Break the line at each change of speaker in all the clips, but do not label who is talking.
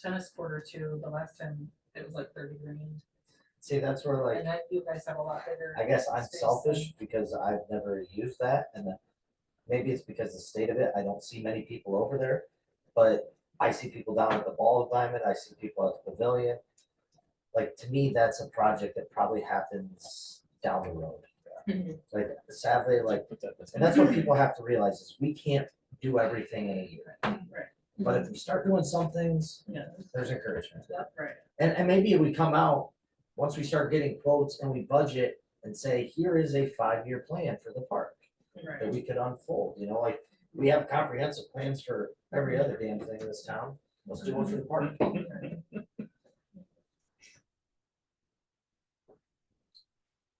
tennis quarter too, the last time it was like thirty grand.
See, that's where like,
And I, you guys have a lot bigger.
I guess I'm
space
selfish because I've never used that and then maybe it's because the state of it, I don't see many people over there. But I see people down at the ball diamond, I see people at the pavilion. Like, to me, that's a project that probably happens down the road.
Mhm.
Like sadly, like,
Put that- that's-
and that's what people have to realize is we can't do everything in a year.
than-
But if we start doing some things,
Yeah,
there's encouragement.
that's right.
And, and maybe we come out, once we start getting quotes and we budget and say, here is a five-year plan for the park that
Right,
we could unfold, you know, like, we have comprehensive plans for every other damn thing in this town. Let's do one for the park.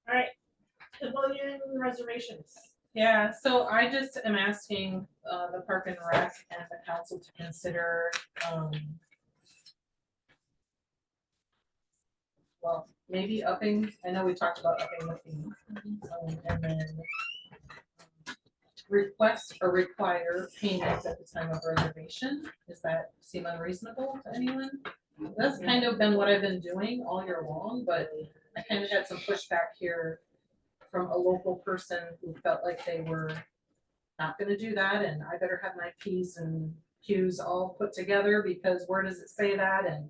Alright, pavilion reservations.
yeah, so I just am asking, uh, the park and rec and the council to consider, um. Well, maybe upping, I know we talked about upping the fee, um, and then. um, Request or require payments at the time of reservation, does that seem unreasonable to anyone? That's kind of been what I've been doing all year long, but I kind of had some pushback here from a local person who felt like they were not gonna do that, and I better have my Ps and Qs all put together, because where does it say that, and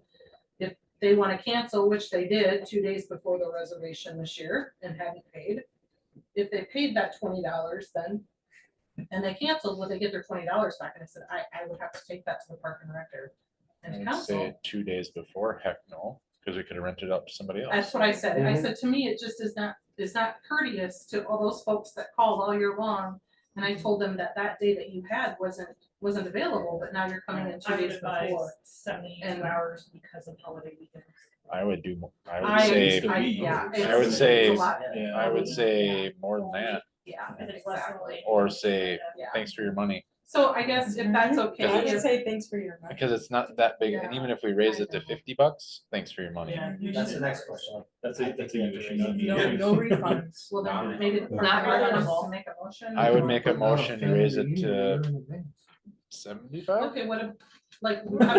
if they wanna cancel, which they did two days before the reservation this year and hadn't paid, if they paid that twenty dollars then, and they canceled, would they get their twenty dollars back? And I said, I, I would have to take that to the park and director and
I'd
council.
say Two days before, heck no, because we could have rented up to somebody else.
That's what I said. I
Mhm.
said, to me, it just is not, is not courteous to all those folks that called all year long. And I told them that that day that you had wasn't, wasn't available, but now you're coming in two
I would
days
advise
before. And-
seventy-two hours because of holiday weekends.
I would do, mo- I would
I,
say,
I, yeah.
I would
it's-
say-
it's a lot.
yeah, I would say more than that,
Yeah,
If it's less than a
exactly.
week.
or say,
Yeah.
thanks for your money,
So I guess
Mm-hmm.
if that's okay,
I would
if-
say thanks for your
because it's not that big, and
Yeah,
even if we raise
I
it to
know.
fifty bucks, thanks for your money.
Yeah. you
That's the
should-
next question.
That's a, that's a huge
No, no refunds.
well, then
Not
maybe
reasonable.
not
Not
reasonable
reasonable.
to make a motion.
I would make a motion to raise it to seventy-five?
Okay, what, a- like, we have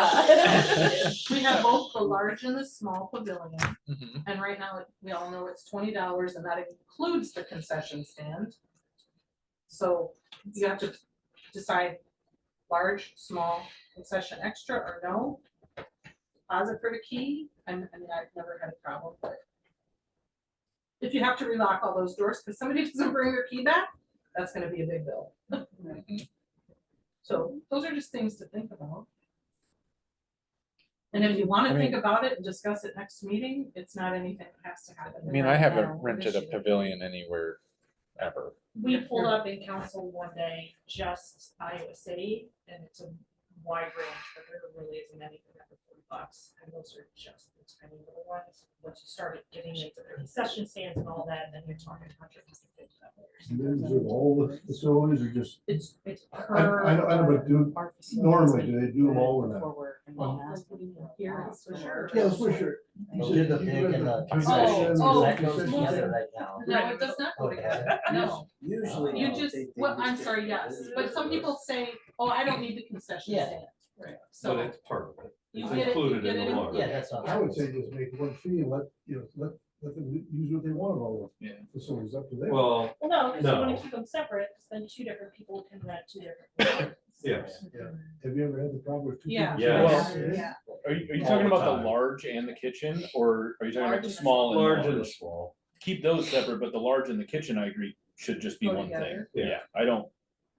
both- we have both the large and the small pavilion.
Mhm.
And right now, we all know it's twenty dollars and that includes the concession stand. So you have to decide large, small, concession extra or no. Deposit for the key, and, I mean, I've never had a problem, but. If you have to relock all those doors, because somebody doesn't bring their key back, that's gonna be a big bill. So those are just things to think about. And if you wanna
I
think about it and discuss it next meeting, it's not anything that has to happen.
I mean, I
now,
haven't rented a
initially.
pavilion anywhere ever.
We pulled up in council one day, just Iowa City, and it's a wide range, but there really isn't anything under forty bucks. And those are just the tiny little ones, once you started getting into the concession stands and all that, then you're talking hundreds and fifty dollars.
And then is it all the facilities or just,
It's, it's
I,
per.
I, don't- I don't, know, but do,
Our facilities
normally,
and
do they do them all in that?
before we're in
Oh.
mass.
Here, it's for sure.
Yeah, that's for sure.
We'll do the big and the
concessions,
concessions, because
oh,
that goes
oh.
together right now.
No, it does not go together, no,
Usually.
you just, well, I'm sorry, yes, but some people say, oh, I don't need the concession
Yeah.
stand. Right.
But
So
it's part of it.
you
It's
get it, you
included
get
in the
it,
large.
Yeah, that's what
I would say just make one fee and let, you know, let, let them use what they want of all the
Yeah.
facilities up to them.
Well,
Well, no, because you want
No.
to keep them separate, 'cause then two different people can rent two different.
yes.
Have you ever had the problem with two?
Yeah.
people?
Yeah.
Yes.
Yeah. Yeah.
Are you, are you
All
talking
the
about
time.
the large and the kitchen, or are you talking
Large
about the
and the
small and
Large and
large?
small.
Keep those separate, but the large and the kitchen, I agree, should just be
Go
one thing.
together.
Yeah.
Yeah, I don't,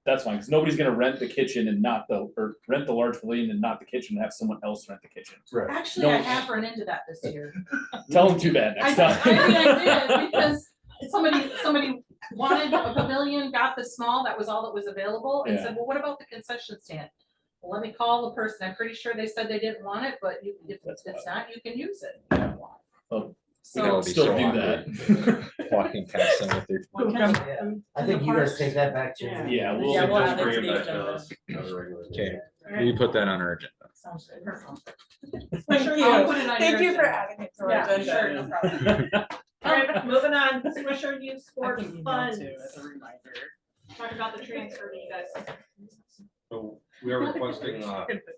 that's fine, because nobody's gonna rent the kitchen and not the, or rent the large pavilion and not the kitchen, and have someone else rent the kitchen.
Right.
Actually, I
No.
have run into that this year.
Tell them too bad
I,
next
I mean, I did,
time.
because somebody, somebody wanted a pavilion, got the small, that was all that was available, and said, well, what about the concession stand? Well, Let me call the person, I'm pretty sure they said they didn't want it, but you- if
That's
it's not, you can use it.
Oh.
Well,
We could
So,
all
can
be
still
so
do
awkward. Walking past them with their
Yeah. I think you guys take that back to.
Yeah.
Yeah, we'll-
Yeah, we'll
Just
add that to
bring it
the
back to
agenda.
us. on a regular
Okay.
basis.
We put that on our agenda.
Sounds good.
Thank
I'll put it
you,
on
thank
your
you for
agenda.
adding it to our
Yeah,
agenda.
sure, no problem.
Alright, moving on, Swisher Youth
I
Sports
can email
Funds,
too as a reminder.
talk about the transfer that you guys
So we are requesting, uh,